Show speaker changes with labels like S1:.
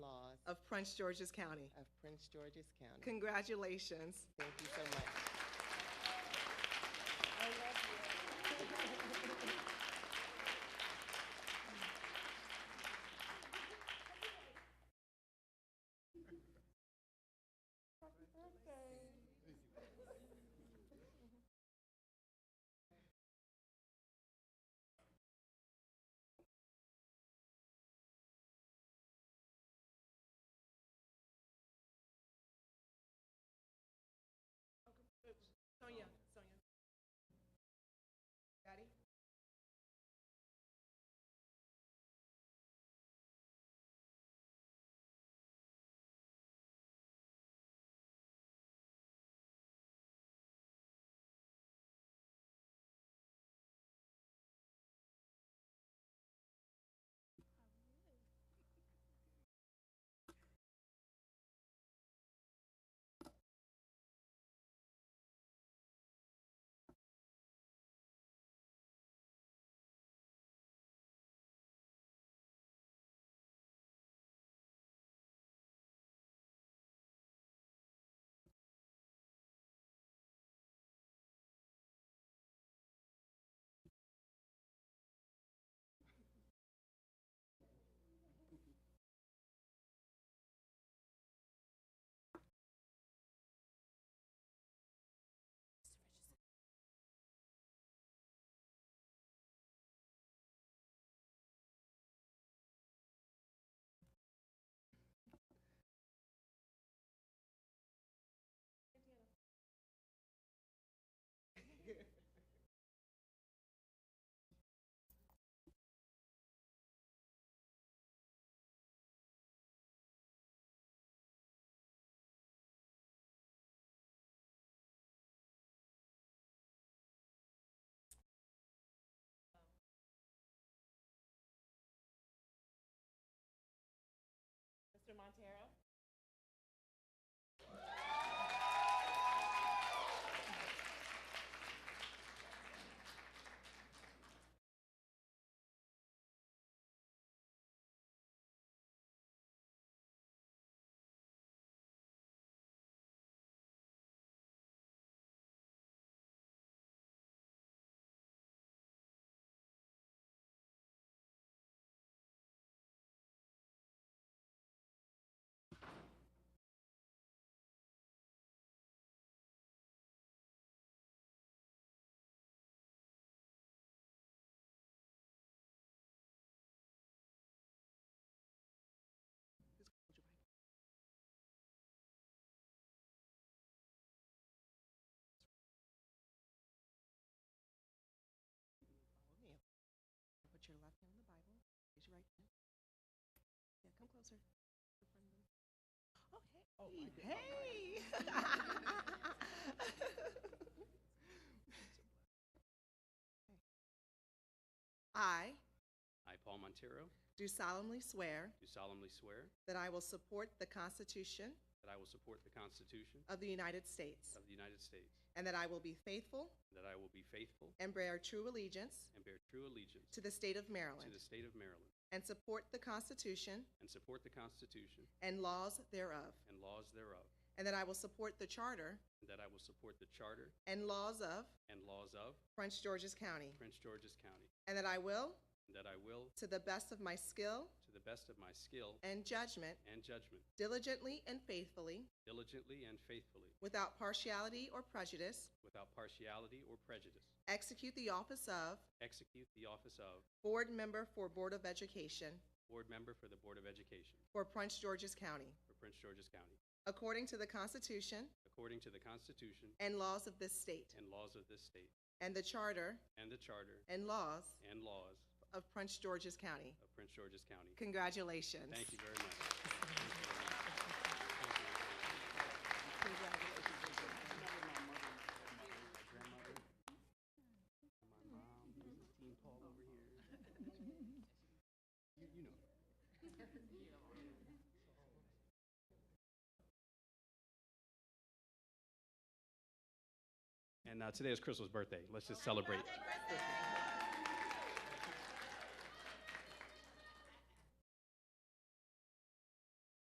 S1: Prince George's County.
S2: of Prince George's County.
S1: Congratulations.
S2: Thank you so much.
S1: Sonia, Sonia. Daddy? Mr. Montero? Put your left hand on the Bible, raise your right hand. Yeah, come closer. In front of them. Oh, hey. Hey. I
S3: I, Paul Montero,
S1: do solemnly swear
S3: do solemnly swear
S1: that I will support the Constitution
S3: that I will support the Constitution
S1: of the United States
S3: of the United States,
S1: and that I will be faithful
S3: and that I will be faithful
S1: and bear true allegiance
S3: and bear true allegiance
S1: to the state of
S3: to
S1: Maryland
S3: the state of Maryland,
S1: and support the Constitution
S3: and support the Constitution
S1: and laws thereof,
S3: and laws thereof,
S1: and that I will support the Charter
S3: and that I will support the Charter
S1: and laws of
S3: and laws of
S1: Prince George's County,
S3: Prince George's County,
S1: and that I will,
S3: and that I will,
S1: to the best of my skill
S3: to the best of my skill
S1: and judgment,
S3: and judgment,
S1: diligently and faithfully,
S3: diligently and faithfully,
S1: without partiality or prejudice,
S3: without partiality or prejudice,
S1: execute the office of
S3: execute the office of
S1: Board Member for Board of Education
S3: Board Member for the Board of Education
S1: for Prince George's County,
S3: for Prince George's County,
S1: according to the Constitution
S3: according to the Constitution
S1: and laws of this state,
S3: and laws of this state,
S1: and the Charter
S3: and the Charter
S1: and laws
S3: and laws
S1: of Prince George's County.
S3: of Prince George's County.
S1: Congratulations.
S3: Thank you very much. Thank you very much. And uh, today is Crystal's birthday. Let's just celebrate.